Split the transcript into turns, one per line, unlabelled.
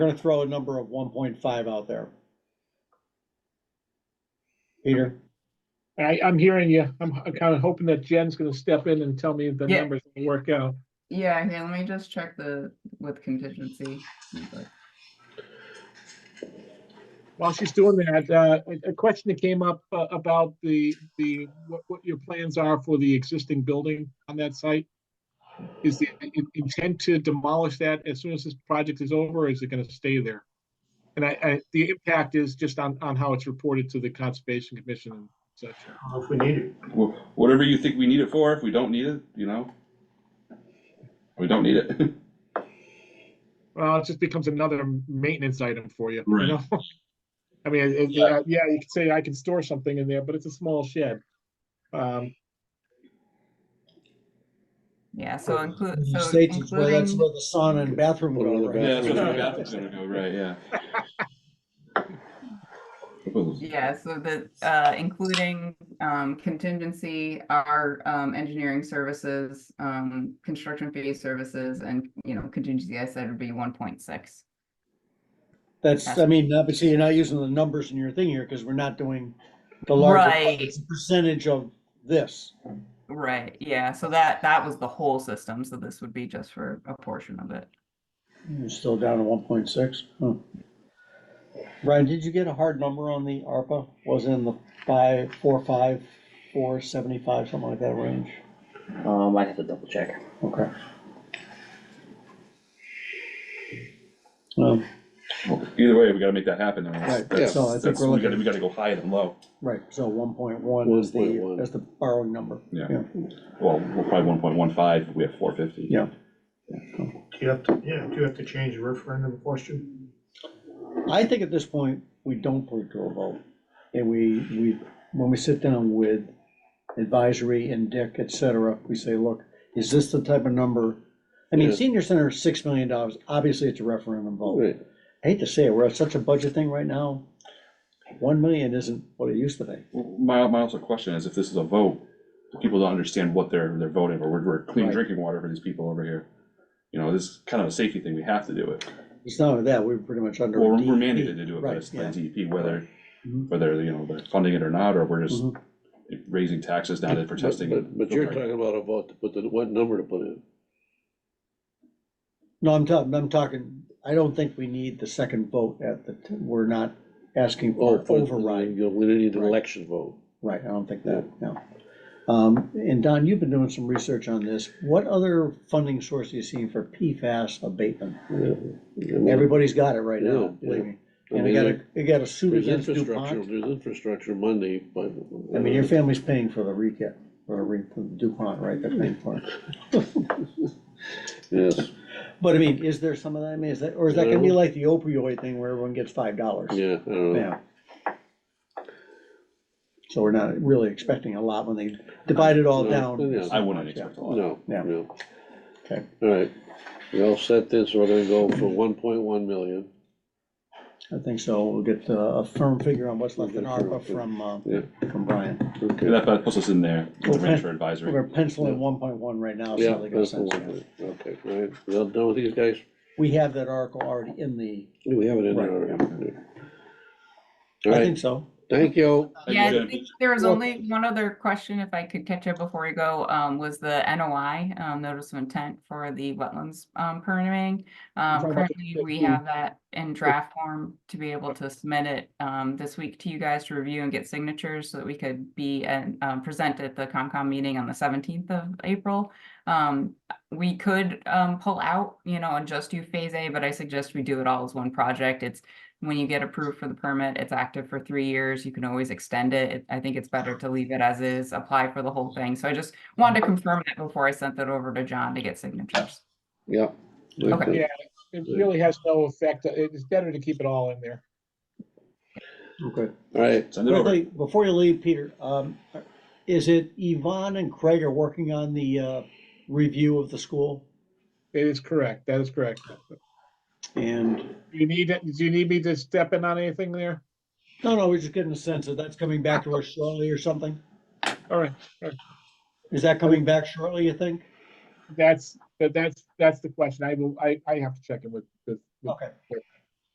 gonna throw a number of one point five out there. Peter,
I, I'm hearing you. I'm, I'm kind of hoping that Jen's gonna step in and tell me if the
Yeah.
numbers will work out.
Yeah, here, let me just check the, with contingency. but-
While she's doing that, uh, a- a question that came up uh, about the, the, what, what your plans are for the existing building on that site? Is the in- intent to demolish that as soon as this project is over, or is it gonna stay there? And I, I, the impact is just on, on how it's reported to the Conservation Commission and such.
If we need it.
Wh- Whatever you think we need it for, if we don't need it, you know? We don't need it.
Well, it just becomes another maintenance item for you. you
Right.
know? I mean, it- it-
Yeah.
uh, yeah, you could say I can store something in there, but it's a small shed. Um,
Yeah, so include,
you
so
stated where that's where
including,
the sauna and bathroom go,
Yeah, that's
right?
where the bathroom's gonna go, right, yeah.
yeah, so the, uh, including, um, contingency, our, um, engineering services, um, construction fee services and, you know, contingency I said would be one point six.
That's, I mean, obviously, you're not using the numbers in your thing here, because we're not doing the larger
Right,
percentage of this.
right, yeah, so that, that was the whole system, so this would be just for a portion of it.
You're still down to one point six, huh? Brian, did you get a hard number on the ARPA? Was it in the five, four, five, four, seventy-five, something like that range?
Um, I have to double check.
Okay. Um,
Either way, we gotta make that happen, and that's,
Right, yeah.
that's,
So I think
that's-
we're
we
looking-
gotta, we gotta go high and low.
right, so one point one is the,
1.1.
that's the borrowing number.
Yeah. Well, we're probably one point one five, we have four fifty.
Yeah.
Do you have to, yeah, do you have to change the referendum question?
I think at this point, we don't put it to a vote. And we, we, when we sit down with advisory and Dick, et cetera, we say, look, is this the type of number? I mean,
Yeah.
senior center, is six million dollars, obviously it's a referendum vote. I hate to say it, we're at such a budget thing right now. One million isn't what it used to be.
My, my also question is, if this is a vote, people don't understand what they're, they're voting, for. we're, we're clean
Right.
drinking water for these people over here. You know, this is kind of a safety thing, we have to do it.
It's not only that, we're pretty much under.
Well, we're
DEP.
we're mandated to do it by
Right,
this- by
E.
yeah.
DEP, E whether,
Mhm.
whether, you know, they're funding it or not, or we're just
Mhm.
raising taxes now that for testing.
But, but you're talking about a vote to put the, what number to put in?
No, I'm talking, I'm talking, I don't think we need the second vote at the, t- we're not asking for
Oh,
an
for
override.
override, you know, we didn't need an
Right.
election vote.
Right, I don't think that, no. Um, And Don, you've been doing some research on this. What other funding source do you see for PFAS abatement?
Everybody,
Everybody's got it right
Yeah,
now, believe me.
I
And I
mean,
got a,
there-
I got a suit
There's
against
infrastructure,
DuPont.
there's infrastructure money, but.
I mean, your family's paying for the recap, or the re- the DuPont, right, they're paying for it.
Yes,
But I mean, is there some of that, I mean, is that, or is that gonna be
No.
like the opioid thing where everyone gets five dollars?
yeah, I don't know.
Yeah. So we're not really expecting a lot when they divide it all
No,
down.
yeah.
I wouldn't expect a lot.
No,
Yeah.
no.
Okay.
All right, we all set this, we're gonna go for one point one million.
I think so. We'll get uh, a firm figure on what's left in ARPA from, uh,
Yeah.
from Brian.
Okay.
That that puts us in there,
Okay.
range for
We're
advisory.
penciling one point one right now,
Yeah,
so they got a
that's the
sense.
one,
of it.
okay, all right, we all done with these guys?
We have that article already in the,
We have it in there
Right,
already. All
I
right,
think so.
Thank you.
And
Yeah, I
then-
think there was
Well-
only one other question, if I could catch up before we go, um, was the NOI, um, notice of intent for the wetlands, um, permitting.
talking
Um,
about the
currently, we
15.
have that in draft form to be able to submit it, um, this week to you guys to review and get signatures so that we could be and, um, present at the Concom meeting on the seventeenth of April. Um, we could, um, pull out, you know, and just do phase A, but I suggest we do it all as one project. It's when you get approved for the permit, it's active for three years. You can always extend it. It- I think it's better to leave it as is, apply for the whole thing. So I just wanted to confirm that before I sent that over to John to get signatures.
Yeah.
Okay.
Yeah, it really has no effect. It- It's better to keep it all in there.
Okay.
All right,
Send it over.
Before you leave, Peter, um, is it Yvonne and Craig are working on the, uh, review of the school?
It is correct, that is correct.
And,
You need, it- do you need me to step in on anything there?
no, no, we're just getting a sense that that's coming back to us shortly or something.
All right,
Is that coming back shortly, you think?
that's, that- that's, that's the question. I will, I, I have to check in with, with. with
Okay.